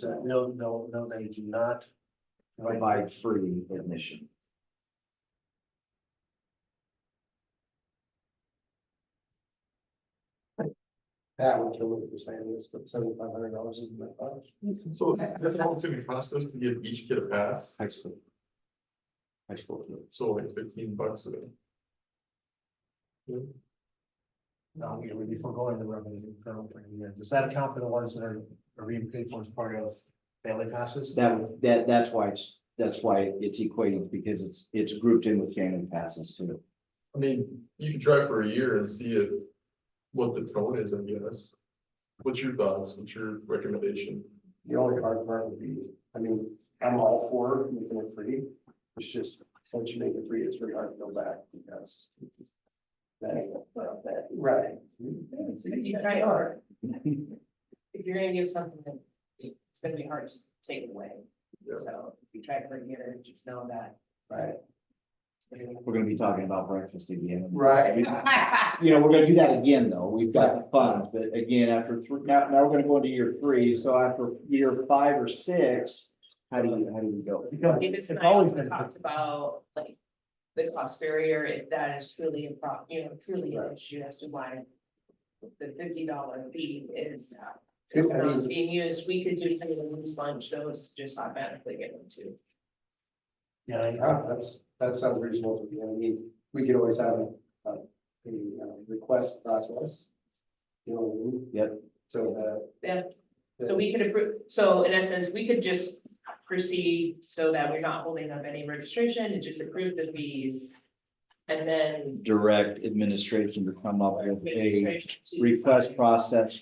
that, no, no, no, they do not. provide free admission. That would kill it, the same as, but seventy-five hundred dollars isn't that much. So that's how it's gonna cost us to give each kid a pass, High school. High school. kids. so like fifteen bucks a day. No, it would be foregoing the revenue. from the year. Does that account for the ones that are, are being paid for as part of family passes? That, that, that's why it's, that's why it's equating, because it's, it's grouped in with family passes too. I mean, you could try for a year and see if, what the tone is, I guess. What's your thoughts, what's your recommendation? The only hard part would be, I mean, I'm all for making it free. It's just, once you make it free, it's very hard to go back because. That, uh, that, right. If you try hard. If you're gonna give something, then it's gonna be hard to take it away. Yeah. So if you try to bring it in, just know that. Right, We're gonna be talking about breakfast again. right. You know, we're gonna do that again, though. We've got the funds, but again, after three, now, now we're gonna go into year three, so after year five or six, how do you, how do you go? Because If it's It's not, always we been- talked about like the cost barrier, if that is truly a problem, you know, truly an issue as to why. The fifty dollar fee is, it's I mean, not being used, we could do, things lunch, those just automatically get them too. Yeah, I- Yeah, that's, that sounds reasonable to me. I mean, we could always have a, a, a uh, request process. You know, what I mean? Yep. so uh, that, Yeah, so we could approve, so in essence, we could just proceed so that we're not holding up any registration and just approve the fees. And then. Direct administration to come up with a administration to request decide. process.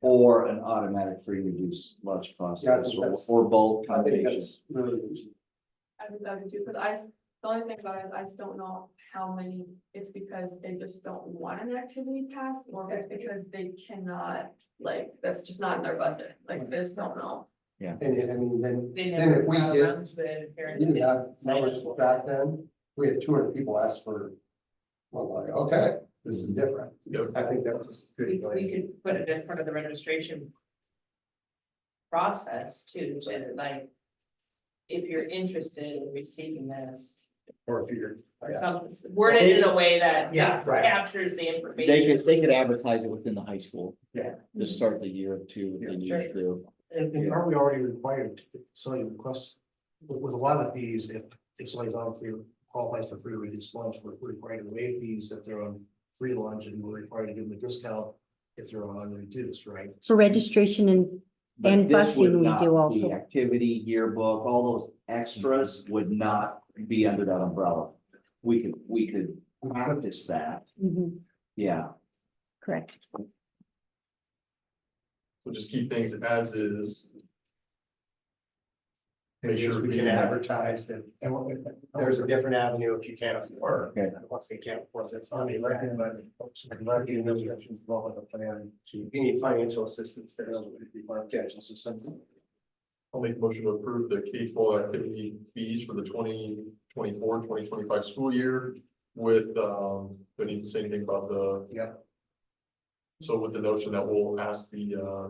Or an automatic free reduced lunch Yeah, I process, think or, that's- or both I think combinations. that's really reasonable. I would, I would do, because I, s- the only thing about it is I just don't know how many, it's because they just don't want an activity pass, or if it's Exactly. because they cannot, like, that's just not in their budget, like, they just don't know. And, and I mean, then They Then never if we got get- around to it, apparently. You didn't have Sign numbers up. back then, we had two hundred people ask for, well, like, okay, this Mm-hmm. is different. Yeah. I think that was a We good. we could put it as part of the registration. Process too, to like. If you're interested in receiving this, Or if you're. or something, word it in a way that Yeah, right. captures the information. They could, they could advertise it within the high school. Yeah. To start the year two, Yeah, then sure. year two. and, and aren't we already required, if somebody requests, with, with a lot of the fees, if, if somebody's on free, qualifies for free or reduced lunch, we're we're required to waive fees if they're on free lunch, and we're required to give them a discount if they're on reduced, right? For registration and, But And this would busing we not do be also. Activity yearbook, all those Mhm. extras would not be under that umbrella. We could, we could practice that, Mhm, yeah. correct. So just keep things as is, Make sure we can advertise that, and what- There's a different avenue if you can't afford. Okay. Once they can't afford, that's I on the mean, record, revenue, but but folks, revenue and restrictions involved with the plan to if you need financial assistance, there's a catch assistance. I'll make a motion to approve the K twelve activity fees for the 2024-2025 school year. With, um, do I need to say anything about the? Yeah. So with the notion that we'll ask the, uh.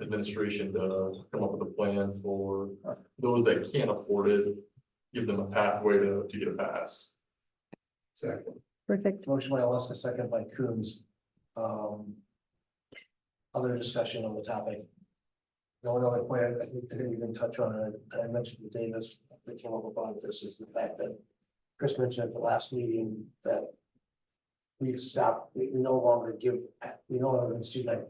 Administration to come up with a plan for those that can't afford it, give them a pathway to, to get a pass. Exactly. Perfect. Motion by Alaska, second by Coombs. Um. Other discussion on the topic. The only other point I think, I think we can touch on, and I- and I mentioned to Davis, that came up about this, is the fact that Chris mentioned at the last meeting that we've stopped, we, we no longer give, we no longer give student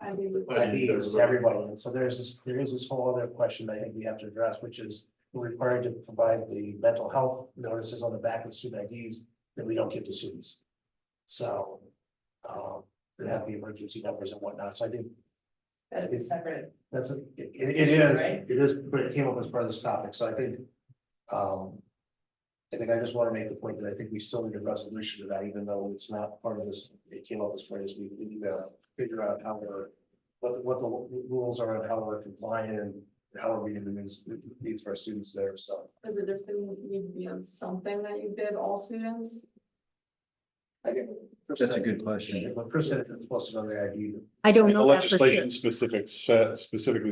I mean, IDs to everybody, and so there's this, there is this whole other question that I think we have to address, which is. We're required to provide the mental health notices on the back of the student IDs that we don't give to students. So, um, they have the emergency numbers and whatnot, so I think That's a separate, that's, a- it, it is, Right. it is, but it came up as part of this topic, so I think. Um, I think I just wanna make the point that I think we still need a resolution to that, even though it's not part of this, it came up as part of this, we, we need to figure out how we're. What, the- what the rules are and how we're complying and how we're meeting the needs, needs for our students there, so. does it just need to be on something that you did all students? I think- That's a good question. But Chris said it's supposed to be on the ID, I don't The know that for sure. legislation specifics, uh, specifically